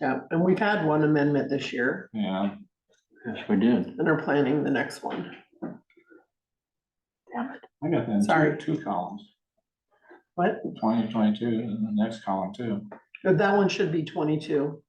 Yeah, and we've had one amendment this year Yeah, Yes, we did. and are planning the next one. Damn it, I got that. in two- Sorry. Two columns, what? twenty twenty-two, and the next column too. That one should be twenty-two,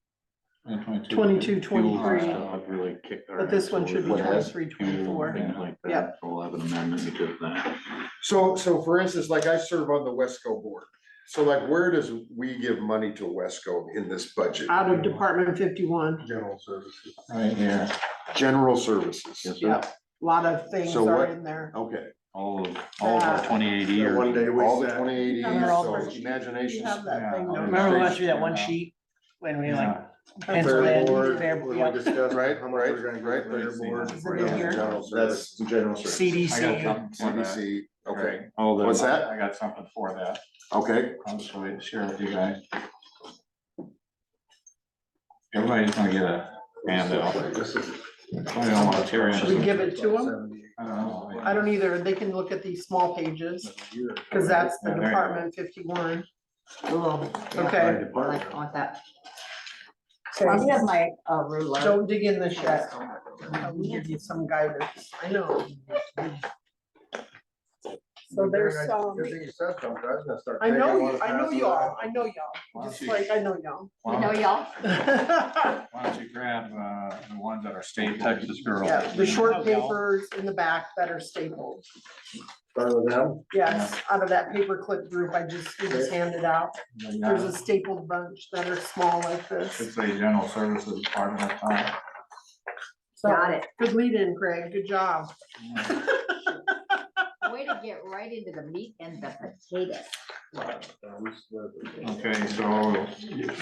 2022. 22, Fuel 23. stuff. I've really kicked our but this ass one should be over that. twenty-three, twenty-four. Things like that. Yep. So we'll have an amendment because of that. So, so for instance, like I serve on the Wesco board, so like where does we give money to Wesco in this budget? Out of Department fifty-one, General services. Right here, General services, Yes, sir. yeah, a lot of things So are what- in there. okay. All of, all of our That- twenty eighty or. One day we All the sat- twenty eighty, And they're all so first- You imaginations. have that thing, Yeah, don't you? Remember last year, that one Yeah. sheet, when we like yeah, pencil in, board, fair, we yeah, discussed Right, how much we right, we're gonna right. right. get fair board, Is it in here? General services. That's general I got CDC, something for that. CDC, okay, Right, All the. What's that? I got something for that, okay, I'll just wait, to share with you guys. Everybody's gonna get a handout. I don't wanna tear Should we in. give it to them? I don't either, they can look at these small pages, cause that's the Yeah, there you go. Department fifty-one. Oh, Okay, Okay. I like, I want that. So I do have my uh, ruler. don't dig in this yet. I'll give you some guidance, I know. So there's some, I know, I know y'all, I know y'all, just like, I know y'all. You know, y'all, Yeah, Why don't you grab, uh, the ones that are state Texas girls? the short papers in the back that are stapled. Yes, out of that paperclip group I just, we just handed out. There's a stapled bunch that are small like this. It's a general services department at the time. So, got it. good lead in, Craig, good job. Way to get right into the meat and the potatoes. Okay, so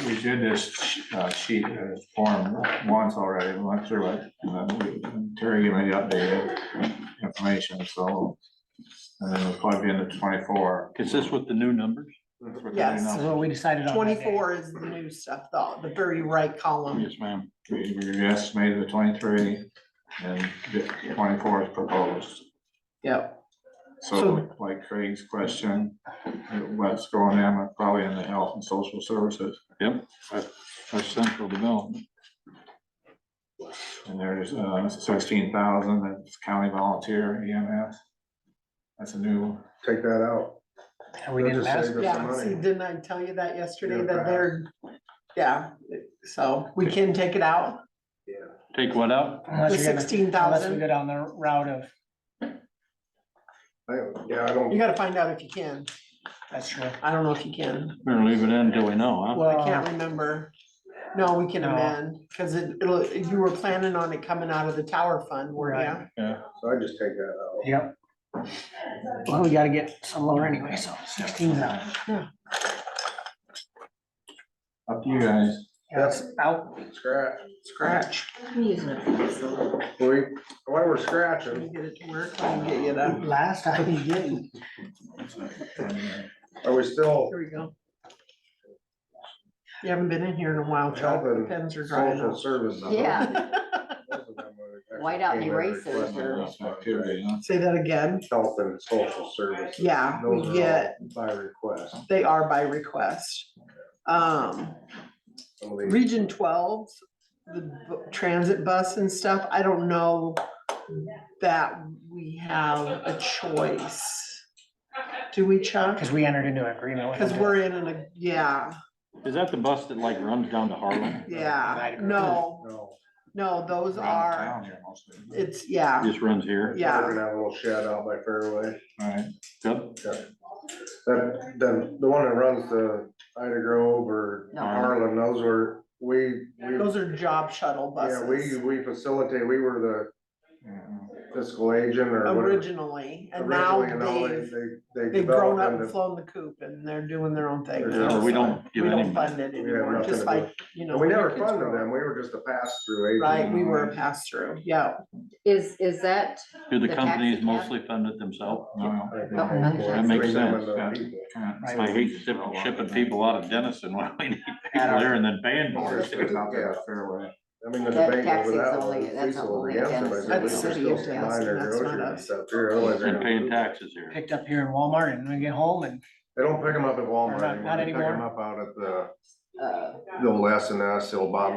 we did this uh, sheet, uh, form once already, we went through it, and then we- Terry gave me the updated information, so. And then we plugged in the twenty-four. Is this with the new numbers? That's what they Yes. That's announced. what we decided on. that day. Twenty-four is the new stuff, though, the very right column. Yes, ma'am. We we estimated the twenty-three, and the twenty-four is proposed. Yep, So like Craig's question, what's going on, probably in the health and social services, Yep, that's, that's central development. and there's sixteen thousand, that's county volunteer EMS. That's a new, Take that out. And we didn't Just ask, save us some yeah, see, money. didn't I tell you that yesterday, Yeah, that they're, yeah, so we can take it out, Take what out? the unless you're gonna, sixteen unless we thousand. go down the route of, I- Yeah, I You don't, gotta find out if you can, that's true. I don't know if you can, Better leave it in until we know, huh? I Well, can't remember. No, we can Um, No. amend, cause it, it'll, you were planning on it coming out of the tower fund, were ya? Right. Yeah. so I just take that out. Yep. Well, we gotta get some lower anyway, so sixteen thousand, up to you guys. that's out, Scratch, Scratch. I'm using a pencil. we, while we're Let scratching, me get it to work, let me get you that, last I was getting, are we still here we go. You haven't been in here in a while, Chuck, Health the and pens are drying social out. services? Yeah. White Whiteout and erasers. Activity, huh? Say that again, Health and social services. yeah, Those we are get, all By request. they are by request. Um, Some of these- Region twelve, the bu- transit bus and stuff, I don't know that we have a choice. Do we, Chuck? cause we entered into an agreement with them. Cause we're in an, ag- yeah, Is that the bus that like runs down to Harlem? yeah, no, No. no, those Around the are, town here mostly. it's, yeah, Just runs here? Yeah. We're gonna have a little shed out by Fairway. Right, Yep. That, then the one that runs the Ida Grove or No. Harlan, those were, we, we, those are job shuttle yeah, we, buses we facilitate, we were yeah. the fiscal agent or whatever. originally, and now originally, and all they've, They, they they've grown developed up and into, flown the coop and they're doing their own thing. They're now, doing- Or we don't We give any don't money. fund it have anymore, nothing just to do. like, you know. and we when your never kids funded grow up. them, we were just a pass-through agent. Right, we were a pass-through, yeah. Is, is that, Do the The taxi companies cab? mostly fund it themselves? No, Like, No, we that paid for it, makes bring them sense, into yeah. people. can't- Right. I hate shipping, shipping people out of Denison when we need people here and then paying for It's it. out there, Fairway. I mean, the That debate tax over is that only- one, the that's lease over only against against- them, but That's they're city still of supplying Jackson, their that's not groceries and us. stuff here, otherwise they're And gonna paying move. taxes here. Picked up here in Walmart and we get home and They don't pick them up at Or Walmart not- anymore, not they pick anymore. them up out at the uh, they'll less than us, they'll bottom